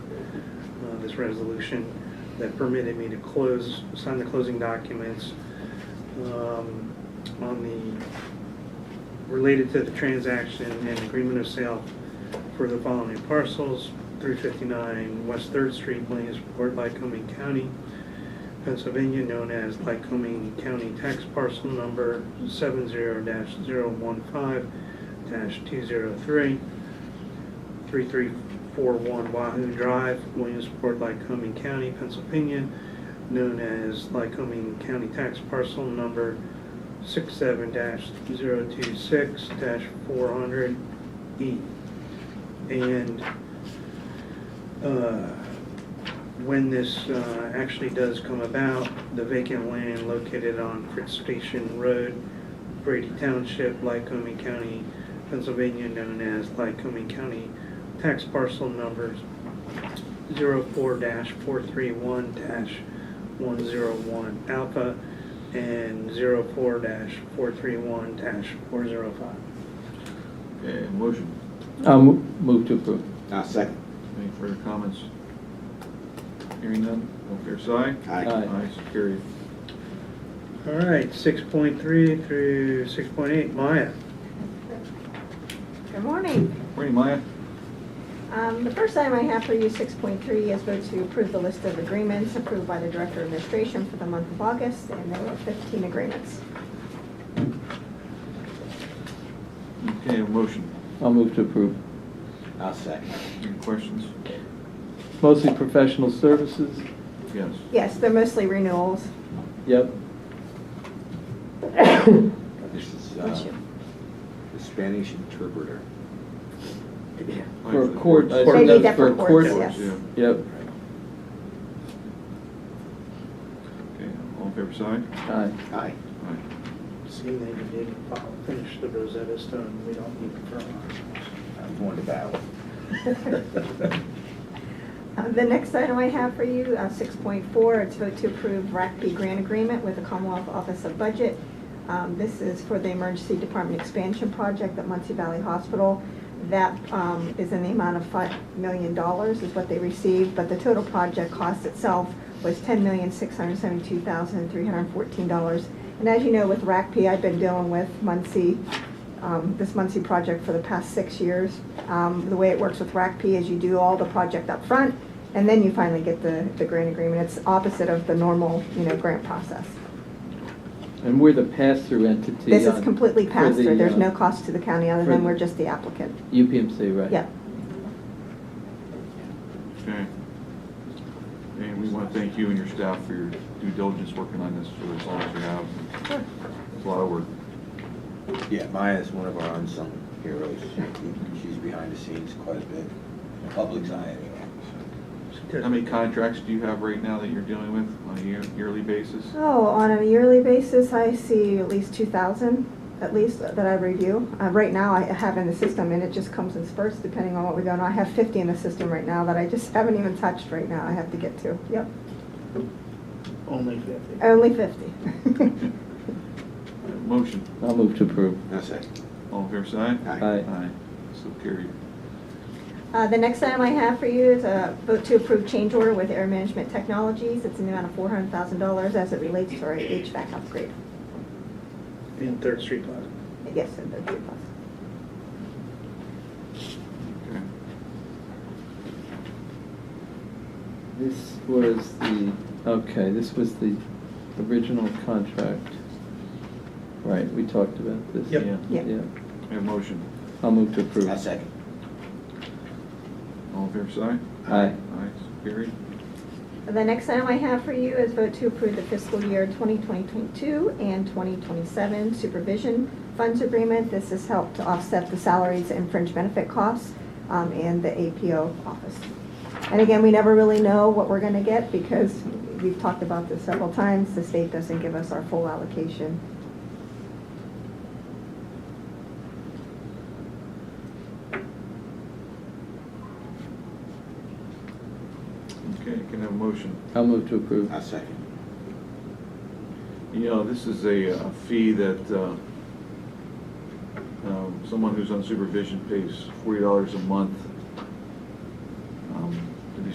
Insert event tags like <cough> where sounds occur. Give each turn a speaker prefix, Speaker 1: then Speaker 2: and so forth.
Speaker 1: uh, this resolution that permitted me to close, sign the closing documents um, on the, related to the transaction and agreement of sale for the following parcels, 359 West Third Street, Williamsport, Lycoming County, Pennsylvania, known as Lycoming County Tax Parcel Number 70-015-203, 3341 Wahoo Drive, Williamsport, Lycoming County, Pennsylvania, known as Lycoming County Tax Parcel Number 67-026-400E. E. And uh, when this uh, actually does come about, the vacant land located on Fritz Station Road, Brady Township, Lycoming County, Pennsylvania, known as Lycoming County Tax Parcel Numbers 04-431-101 Alpha and 04-431-405.
Speaker 2: Okay, motion.
Speaker 3: I'll mo- move to approve.
Speaker 4: I'll second.
Speaker 2: Any further comments? Hearing none, all fair side?
Speaker 4: Aye.
Speaker 3: Aye.
Speaker 2: Aye, so carried.
Speaker 1: All right, 6.3 through 6.8, Maya.
Speaker 5: Good morning.
Speaker 2: Morning, Maya.
Speaker 5: Um, The first item I have for you, 6.3, is vote to approve the list of agreements approved by the Director of Administration for the month of August, and there were 15 agreements.
Speaker 2: Okay, a motion.
Speaker 3: I'll move to approve.
Speaker 4: I'll second.
Speaker 2: Any questions?
Speaker 3: Mostly professional services.
Speaker 2: Yes.
Speaker 5: Yes, they're mostly renewals.
Speaker 3: Yep.
Speaker 4: This is
Speaker 5: Bless
Speaker 4: uh,
Speaker 5: you.
Speaker 4: the Spanish interpreter.
Speaker 3: For a court. I
Speaker 5: They
Speaker 3: think
Speaker 5: need
Speaker 3: that's for a
Speaker 5: different courts,
Speaker 3: court.
Speaker 5: yes.
Speaker 2: Yeah.
Speaker 3: Yep.
Speaker 2: Okay, all in favor side?
Speaker 3: Aye.
Speaker 4: Aye.
Speaker 2: Aye.
Speaker 1: See, they did finish the Rosetta Stone, we don't need to
Speaker 4: I'm going to battle.
Speaker 5: <laughs> Uh, The next item I have for you, uh, 6.4, it's vote to approve RACP grant agreement with the Commonwealth Office of Budget. Um, This is for the Emergency Department Expansion Project at Muncie Valley Hospital. That um, is in the amount of $5 million dollars is what they received, but the total project cost itself was $10,672,314. And as you know, with RACP, I've been dealing with Muncie um, this Muncie project for the past six years. Um, The way it works with RACP is you do all the project up front, and then you finally get the, the grant agreement. It's opposite of the normal, you know, grant process.
Speaker 3: And we're the pass-through entity.
Speaker 5: This is
Speaker 3: on-
Speaker 5: completely
Speaker 3: uh, for
Speaker 5: passed
Speaker 3: the,
Speaker 5: through. There's
Speaker 3: uh,
Speaker 5: no cost to the county other
Speaker 3: for
Speaker 5: than
Speaker 3: the-
Speaker 5: we're just the applicant.
Speaker 3: UPMC, right?
Speaker 5: Yeah.
Speaker 2: Okay. And we want to thank you and your staff for your due diligence working on this for as long as you have. It's a lot of work.
Speaker 4: Yeah, Maya is one of our unsung heroes. She's behind the scenes quite a bit. Public's eye anyway.
Speaker 2: How many contracts do you have right now that you're dealing with on a year- yearly basis? <laughs>
Speaker 5: Oh, on a yearly basis, I see at least 2,000, at least, that I review. Uh, Right now, I have in the system, and it just comes in spurts depending on what we go on. I have 50 in the system right now that I just <laughs> haven't even touched right now. I have to get to. Yep,
Speaker 1: Only 50.
Speaker 5: only 50.
Speaker 2: Uh, Motion.
Speaker 3: I'll move to approve.
Speaker 4: I'll second.
Speaker 2: All in favor side?
Speaker 4: Aye.
Speaker 3: Aye.
Speaker 2: Aye. So carried.
Speaker 5: Uh, The next item I have for you is a vote to approve change order with Air Management Technologies. It's in the amount of $400,000 as it relates to our HVAC upgrade.
Speaker 1: In Third Street Plaza.
Speaker 5: Yes, and the three plus.
Speaker 2: Okay.
Speaker 3: This was the, okay, this was the original contract. Right, we talked about this.
Speaker 1: Yep.
Speaker 2: Yeah.
Speaker 5: Yep.
Speaker 3: Yeah.
Speaker 2: We have a motion.
Speaker 3: I'll move to approve.
Speaker 4: I'll second.
Speaker 2: All in favor side?
Speaker 3: Aye.
Speaker 2: Aye. So carried.
Speaker 5: The next item I have for you is vote to approve the fiscal year 2022 and 2027 supervision funds agreement. This has helped to offset the salaries and fringe benefit costs um, and the APO office. And again, we never really know what we're going to get because we've talked about this several times. The state doesn't give us our full allocation.
Speaker 2: Okay, can I have a motion?
Speaker 3: I'll move to approve.
Speaker 4: I'll second.
Speaker 2: You know, this is a uh, fee that uh, um, someone who's on supervision pays forty dollars a month um,